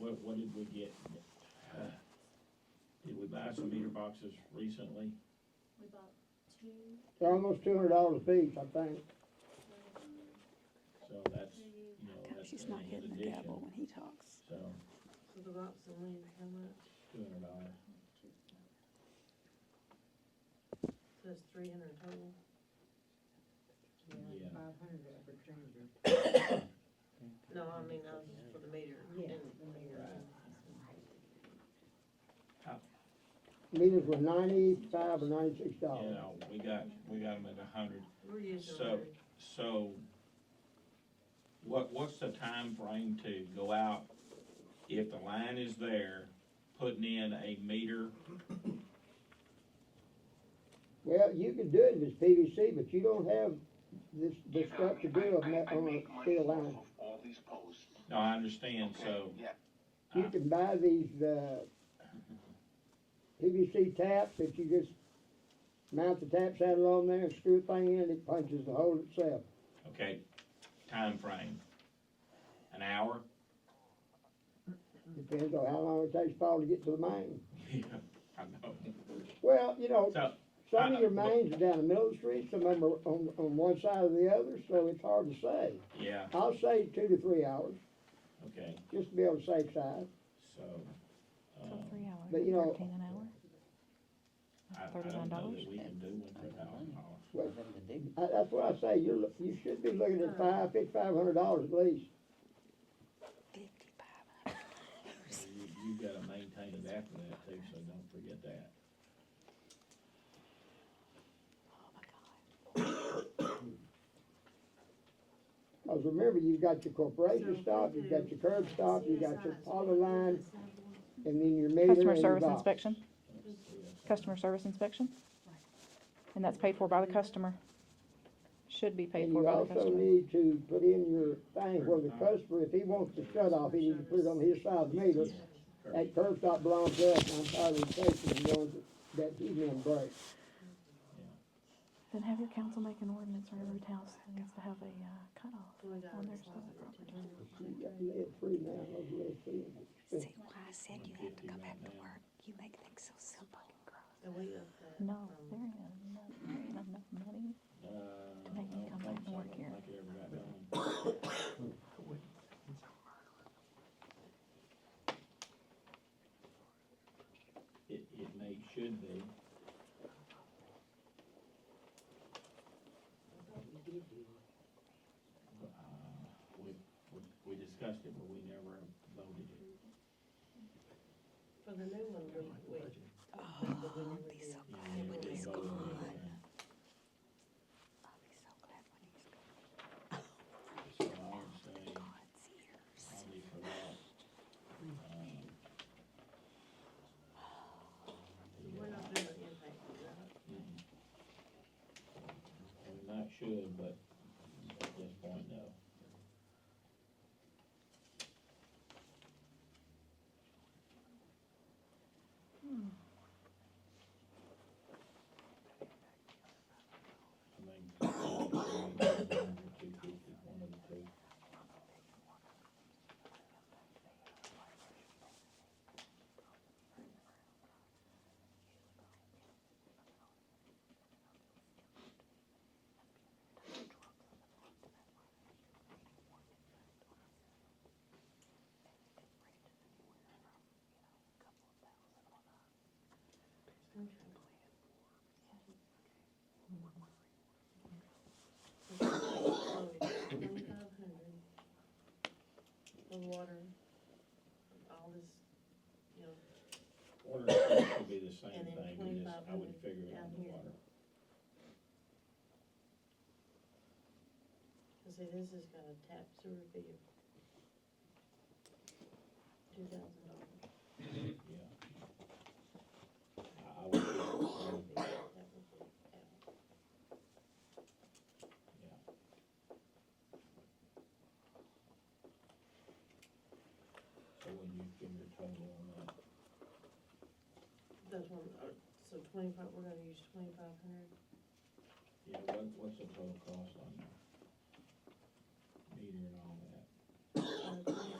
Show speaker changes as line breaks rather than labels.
did we get, uh, did we buy some meter boxes recently?
We bought two,
They're almost two hundred dollars a piece, I think.
So that's,
three,
you know,
God,
that's
she's
an
not hitting the gavel
addition,
when he talks.
so
So the rocks and land, how much?
two hundred dollars.
two,
So that's three hundred total?
Yeah.
Five hundred for Granger.
No, I mean, I was for the meter.
Yeah.
and the meter.
Meters were ninety-five or ninety-six
You
dollars.
know, we got, we got them at a hundred.
We're using
So-
hundred.
So what, what's the time frame to go out if the line is there, putting in a meter?
Well, you can do it if it's PVC, but you don't have this, this stuff to do on that, on a steel line.
All these posts.
No, I understand, so,
Yeah,
You can buy these, uh, PVC taps that you just mount the tap saddle on there, screw the thing in, it punches the hole itself.
okay, time frame, An hour?
Depends on how long it takes Paul to get to the main.
Yeah, I know.
Well, you know,
So,
some of your
I- I-
mains are down the middle of the street, some of them are on, on one side or the other, so it's hard to say.
yeah,
I'll say two to three hours,
okay,
just to be on the safe side.
so, um,
hours,
But, you know-
an hour?
I, I don't know that we can do one for a thousand dollars.
Well,
Nothing to do.
I, that's what I say, you're, loo- you should be looking at five, fifty-five hundred dollars at least.
Fifty-five.
You, you gotta maintain it after that too, so don't forget that.
Oh, my God.
Cause remember, you've got your corporation
So,
stop, you've got your curb stop, you got your auto line, and then your meter and
Customer
your
service
box.
inspection, customer service inspection. And that's paid for by the customer. Should be paid
And
for
you
by the
also
customer.
need to put in your thing where the customer, if he wants to shut off, he needs to put it on his side of the meter. That curb stop belongs to us, and I'm tired of facing the ones that he didn't break.
Then have your council make an ordinance for every house that needs to have a, uh, cutoff.
We got
Well,
our
there's other
slides up to
property.
turn.
You got lead free now, those lead free.
See why I said you have
150
to go
right
back to
now.
work? You make things so simple.
And we got that.
No, there
from-
ain't enough, there ain't enough money.
Uh, I
Make him
don't
come
think
back and
so. I
work
don't
here.
think it ever got done. It, it may, should be, uh, we, we, we discussed it, but we never voted it.
For the new one, we, we.
Oh, I'll be so glad when he's
Yeah, we never
gone.
voted it.
I'll be so glad when he's gone.
So I would say,
God's ears.
probably for that, um,
We're not doing an impact, right?
mm. we not should, but at this point, no. I mean, two fifty, one of the two.
Twenty-five hundred for water, all this, you know,
Water and sewer should be the same
And then
thing, we just, I would
2500
figure it on
down
the
here.
water.
cause see, this has got a tap sewer fee of two thousand dollars.
Yeah. I, I would, figure it so when you give your total on that,
That's one, uh, so twenty-five, we're gonna use twenty-five hundred,
yeah, what, what's the total cost on that? Meter and all that,
uh, twenty-five